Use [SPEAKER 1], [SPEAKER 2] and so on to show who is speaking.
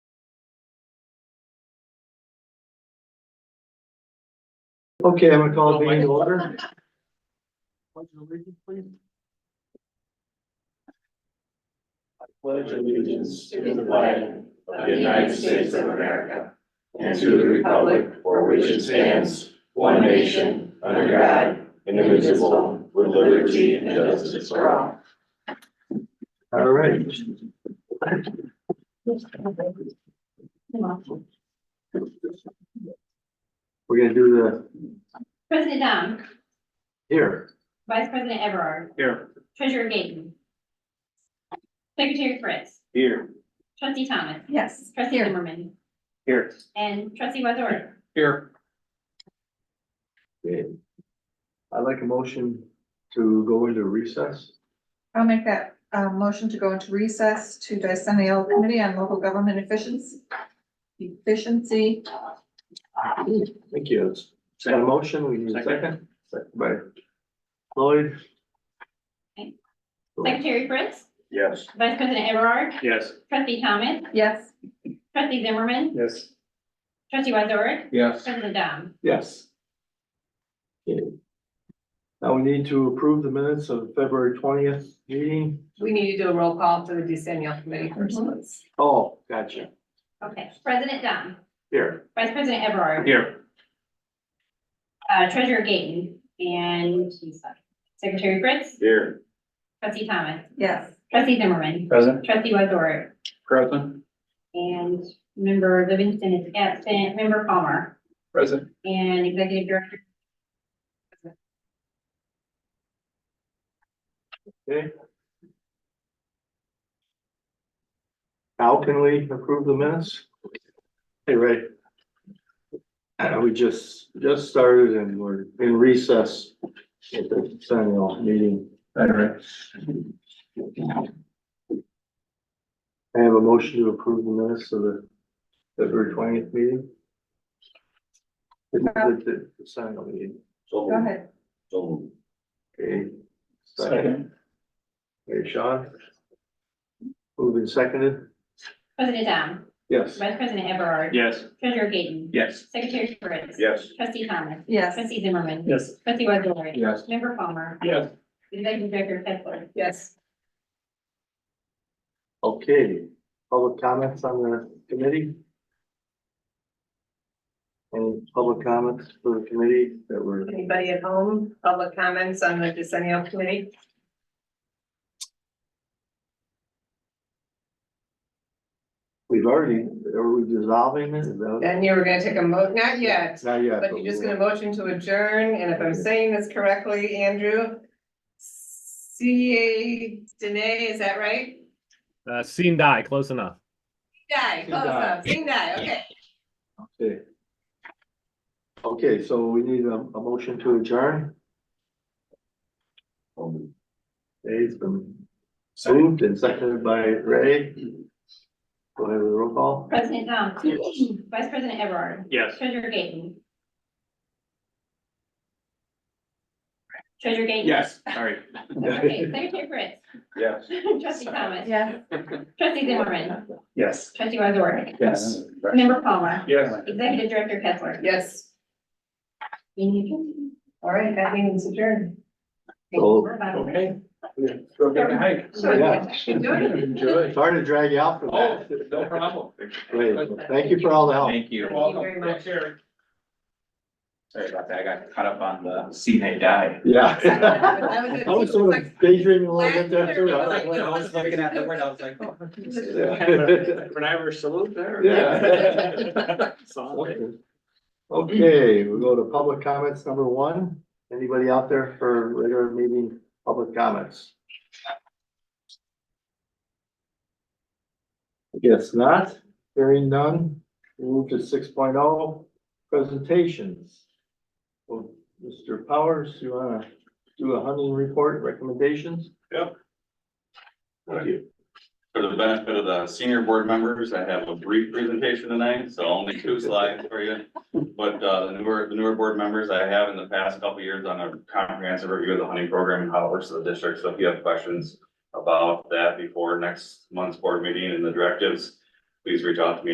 [SPEAKER 1] Okay, I'm gonna call the meeting to order. Pledge of allegiance, please.
[SPEAKER 2] pledge allegiance to the flag of the United States of America and to the republic for which it stands, one nation, under God, indivisible, with liberty and justice for all.
[SPEAKER 1] All right. We're gonna do the
[SPEAKER 3] President Dom,
[SPEAKER 1] here.
[SPEAKER 3] Vice President Everard,
[SPEAKER 1] Here.
[SPEAKER 3] Treasurer Gayton. Secretary Fritz,
[SPEAKER 1] Here.
[SPEAKER 3] Trustee Thomas,
[SPEAKER 4] Yes.
[SPEAKER 3] Trustee Zimmerman,
[SPEAKER 1] Here.
[SPEAKER 3] and Trustee Wazor.
[SPEAKER 1] Here. Okay. I'd like a motion to go into recess.
[SPEAKER 4] I'll make that uh motion to go into recess to Decennial Committee on Local Government Efficiency. Efficiency,
[SPEAKER 1] Thank you. Got a motion, we need a second. Second By Lloyd.
[SPEAKER 3] Okay. Secretary Fritz,
[SPEAKER 2] Yes.
[SPEAKER 3] Vice President Everard,
[SPEAKER 1] Yes.
[SPEAKER 3] Trustee Thomas,
[SPEAKER 4] yes.
[SPEAKER 3] Trustee Zimmerman,
[SPEAKER 1] Yes.
[SPEAKER 3] Trustee Wazor,
[SPEAKER 1] Yes.
[SPEAKER 3] President Dom.
[SPEAKER 1] Yes. Okay. Now we need to approve the minutes of February twentieth meeting.
[SPEAKER 5] We need to do a roll call for the decennial committee first. let's-
[SPEAKER 1] Oh, gotcha.
[SPEAKER 3] Okay, President Dom,
[SPEAKER 1] Here.
[SPEAKER 3] Vice President Everard.
[SPEAKER 1] Here.
[SPEAKER 3] Uh, Treasurer Gayton, and Secretary Fritz,
[SPEAKER 2] Here.
[SPEAKER 3] Trustee Thomas,
[SPEAKER 4] Yes.
[SPEAKER 3] Trustee Zimmerman,
[SPEAKER 2] Present.
[SPEAKER 3] Trustee Wazor,
[SPEAKER 2] Present.
[SPEAKER 3] And member Livingston is absent, member Palmer
[SPEAKER 2] Present.
[SPEAKER 3] and executive director.
[SPEAKER 1] Okay. How can we approve the minutes? Hey, Ray. Uh, we just, just started and we're in recess at the Sentinel meeting.
[SPEAKER 2] All right.
[SPEAKER 1] I have a motion to approve the minutes of the February twentieth meeting. The, the, the- the Sentinel meeting.
[SPEAKER 2] So,
[SPEAKER 4] Go ahead.
[SPEAKER 2] so.
[SPEAKER 1] Okay. Okay, Sean? Moved and seconded?
[SPEAKER 3] President Down,
[SPEAKER 1] Yes.
[SPEAKER 3] Vice President Everard.
[SPEAKER 1] Yes.
[SPEAKER 3] Treasurer Gayton,
[SPEAKER 1] Yes.
[SPEAKER 3] Secretary Fritz.
[SPEAKER 2] Yes.
[SPEAKER 3] Trustee Thomas.
[SPEAKER 4] Yes.
[SPEAKER 3] Trustee Zimmerman.
[SPEAKER 1] Yes.
[SPEAKER 3] Trustee Wazore.
[SPEAKER 1] Yes.
[SPEAKER 3] Member Palmer.
[SPEAKER 1] Yes.
[SPEAKER 3] Executive Director Fetchler.
[SPEAKER 5] Yes,
[SPEAKER 1] Okay, public comments on the committee? Any public comments for the committee that were,
[SPEAKER 5] anybody at home, public comments on the decennial committee?
[SPEAKER 1] we've already, are we dissolving it? Is that-
[SPEAKER 5] Then you were gonna take a mo, not yet,
[SPEAKER 1] Not yet.
[SPEAKER 5] but you're just gonna motion to adjourn, and if I'm saying this correctly, Andrew. C A Dene, is that right?
[SPEAKER 6] Uh, seen die, close enough.
[SPEAKER 5] Die, close enough, sing die, okay.
[SPEAKER 1] Okay. Okay, so we need a, a motion to adjourn. Okay, it's been moved and seconded by Ray. Go ahead with the roll call.
[SPEAKER 3] President Down, Vice President Everard.
[SPEAKER 1] Yes.
[SPEAKER 3] Treasurer Gayton. Treasurer Gayton.
[SPEAKER 1] sorry.
[SPEAKER 3] Okay, Secretary Fritz.
[SPEAKER 2] Yes.
[SPEAKER 3] Trustee Thomas.
[SPEAKER 4] Yes.
[SPEAKER 3] Trustee Zimmerman.
[SPEAKER 2] Yes.
[SPEAKER 3] Trustee Wazor.
[SPEAKER 2] Yes.
[SPEAKER 3] Member Palmer.
[SPEAKER 2] Yes.
[SPEAKER 3] Executive Director Kessler.
[SPEAKER 5] Yes,
[SPEAKER 3] Meeting
[SPEAKER 5] all right, that means adjourned.
[SPEAKER 1] So,
[SPEAKER 3] adjourned.
[SPEAKER 2] Okay. Go get a hike.
[SPEAKER 1] yeah,
[SPEAKER 2] Enjoy.
[SPEAKER 1] sorry to drag you out for that.
[SPEAKER 2] no problem.
[SPEAKER 1] Great, Oh, thank you for all the help.
[SPEAKER 7] Thank you.
[SPEAKER 5] Thank you very much.
[SPEAKER 7] Sorry about that. I got caught up on the see they die.
[SPEAKER 1] Yeah.
[SPEAKER 5] That
[SPEAKER 1] I was sort of daydreaming a little bit there too. I was like,
[SPEAKER 7] I was looking at the word, I was like. oh.
[SPEAKER 1] Yeah.
[SPEAKER 7] An Irish salute there.
[SPEAKER 1] Yeah. Okay, we go to public comments number one. Anybody out there for regular meeting public comments? I Guess not. Hearing none. Move to six oh, presentations. Well, Mr. Powers, you wanna do a hunting report recommendations?
[SPEAKER 2] Yep.
[SPEAKER 1] Thank you.
[SPEAKER 8] For the benefit of the senior board members, I have a brief presentation tonight, so only two slides for you. But uh, the newer, the newer board members I have in the past couple of years on a comprehensive review of the hunting program and how it works in the district. So if you have questions about that before next month's board meeting and the directives, please reach out to me